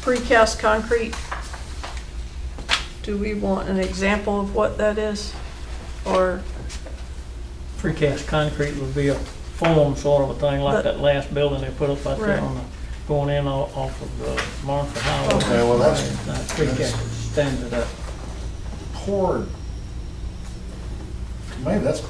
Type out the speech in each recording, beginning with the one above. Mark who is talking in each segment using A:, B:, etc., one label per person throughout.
A: precast concrete, do we want an example of what that is? Or,
B: Precast concrete would be a form sort of a thing, like
A: But-
B: that last building they put up out
A: Right.
B: there on the, going in o- off of uh, Martha Highway.
C: Okay, well, that's-
B: That Precast stands it up.
C: poured. Maybe that's,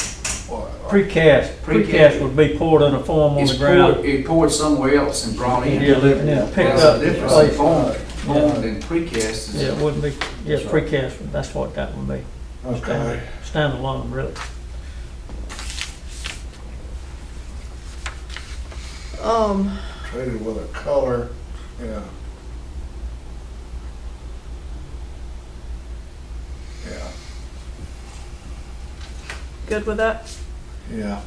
C: well,
B: Precast, precast would be poured in a form on
D: It's
B: the ground.
D: poured, it poured somewhere else and brought in.
B: Yeah, yeah, picked
D: That's
B: up.
D: the difference,
B: placed.
D: formed, formed
B: Yeah.
D: and precast
B: Yeah, it
D: is,
B: wouldn't be, yeah, precast, that's what that would be.
C: okay.
B: Stand- Standalone, really.
A: um,
C: Traded with a color, yeah. Yeah,
A: good with that?
C: yeah.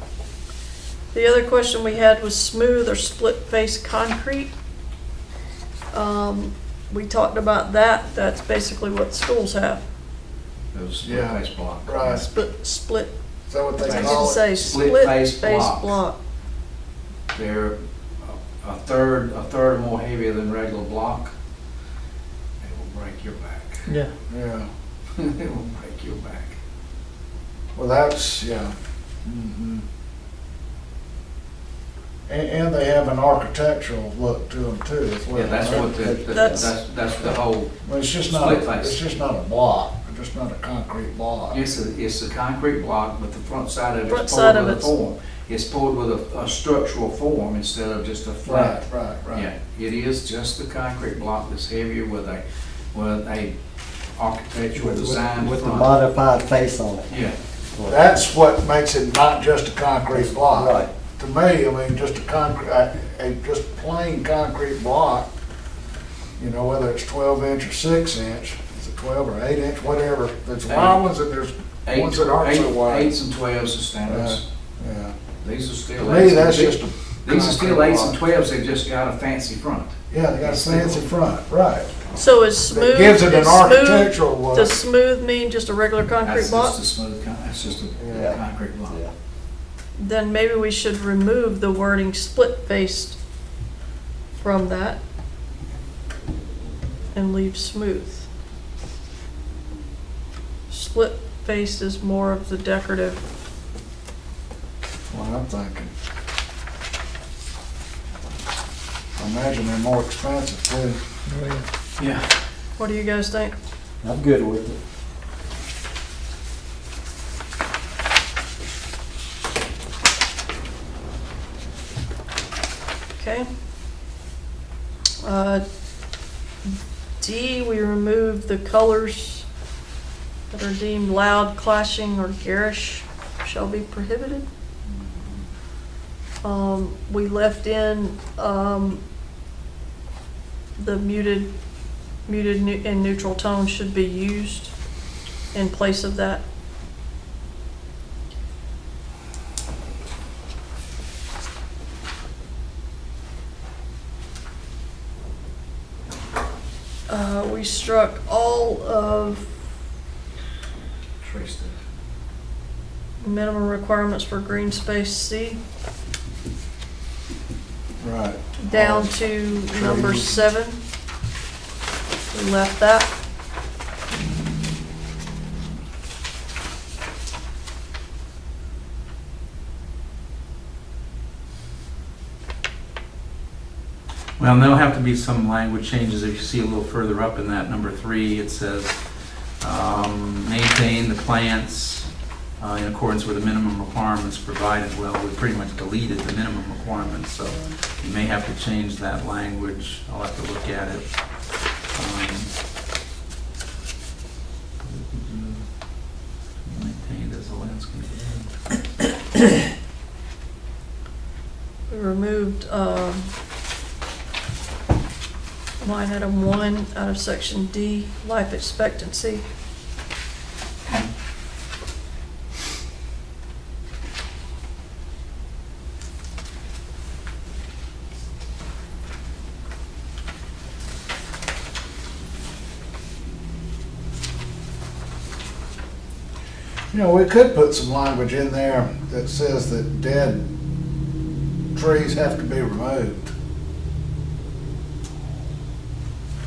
A: The other question we had was smooth or split face concrete. Um, we talked about that, that's basically what schools have,
D: those
C: Yeah.
D: split face block.
C: Right.
A: split, split,
C: Is that what they
A: I
C: call
A: didn't
C: it?
A: say
D: Split
A: split
D: face
A: face
D: block.
A: block.
D: They're a- a third, a third more heavier than regular block. It will break your back.
B: Yeah,
C: Yeah,
D: It will break your back.
C: well, that's, yeah. Mhm. And, and they have an architectural look to them too as well.
D: Yeah, that's
C: right?
D: what the, the-
A: That's-
D: that's, that's the whole,
C: Well, it's just not,
D: Split face.
C: it's just not a block, it's just not a concrete block.
D: it's a, it's a concrete block, but the front side of
A: Front
D: it's
A: side
D: poured
A: of
D: with a
A: it's-
D: form. It's poured with a, a structural form instead of just a flat
C: Right, right, right.
D: Yeah, it is just the concrete block that's heavier with a, with a architectural design
E: With the
D: front.
E: modified face on it.
D: Yeah,
C: That's what makes it not just a concrete block.
E: Right.
C: To me, I mean, just a concrete, a, a just plain concrete block, you know, whether it's twelve inch or six inch, it's a twelve or eight inch, whatever. There's wide ones and there's
D: eight,
C: ones that aren't so
D: eight,
C: wide.
D: eights and twelves are standards.
C: Yeah.
D: These are
C: To
D: still.
C: me,
D: eights and-
C: that's just a.
D: These are still
C: concrete
D: eights and
C: block.
D: twelves, they've just got a fancy front.
C: Yeah, they got a fancy front, right.
A: So is smooth,
C: That gives it an
A: is smooth,
C: architectural look.
A: does smooth mean just a regular concrete
D: That's just
A: block?
D: a smooth, con- that's just a
E: Yeah.
D: concrete block.
E: Yeah.
A: Then maybe we should remove the wording split faced from that and leave smooth. Split faced is more of the decorative
C: What I'm thinking. I imagine they're more expensive too.
B: really.
D: Yeah.
A: What do you guys think?
E: I'm good with it.
A: Okay. Uh, D, we remove the colors that are deemed loud, clashing, or garish shall be prohibited. Um, we left in, um, the muted, muted nu- and neutral tones should be used in place of that. Uh, we struck all of
D: Traced
A: minimum requirements for green space C
C: Right.
A: down to number seven. We left that.
F: Well, and there'll have to be some language changes if you see a little further up in that number three. It says, um, maintain the plants uh, in accordance with the minimum requirements provided. Well, we pretty much deleted the minimum requirements, so you may have to change that language. I'll have to look at it. Um, Maintained as a landscape.
A: We removed, um, line item one out of section D, life expectancy.
C: You know, we could put some language in there that says that dead trees have to be removed.